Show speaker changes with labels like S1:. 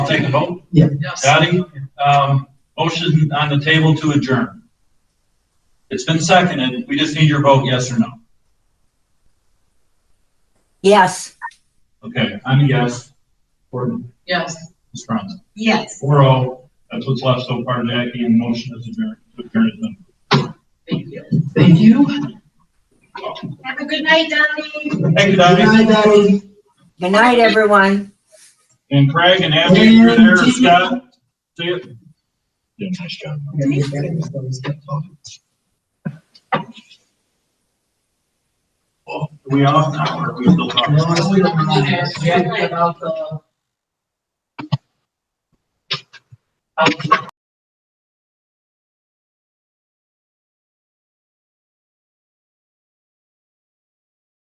S1: take a vote.
S2: Yes.
S1: Dottie, um, motion on the table to adjourn. It's been seconded. We just need your vote, yes or no.
S3: Yes.
S1: Okay, I'm a yes. Gordon,
S2: Yes.
S1: Ms. Franz.
S2: Yes.
S1: Four oh, that's what's left so far, Jackie, and motion is adjourned. Adjourn is done.
S2: Thank you. Thank you.
S4: Have a good night, Donnie.
S1: Thank you, Dottie.
S3: Good night, everyone.
S1: And Craig and Abby, you're there, Scott. See you. Yeah, nice job. Are Oh, we off now or are we still talking?
S2: we don't want to ask Jackie about the.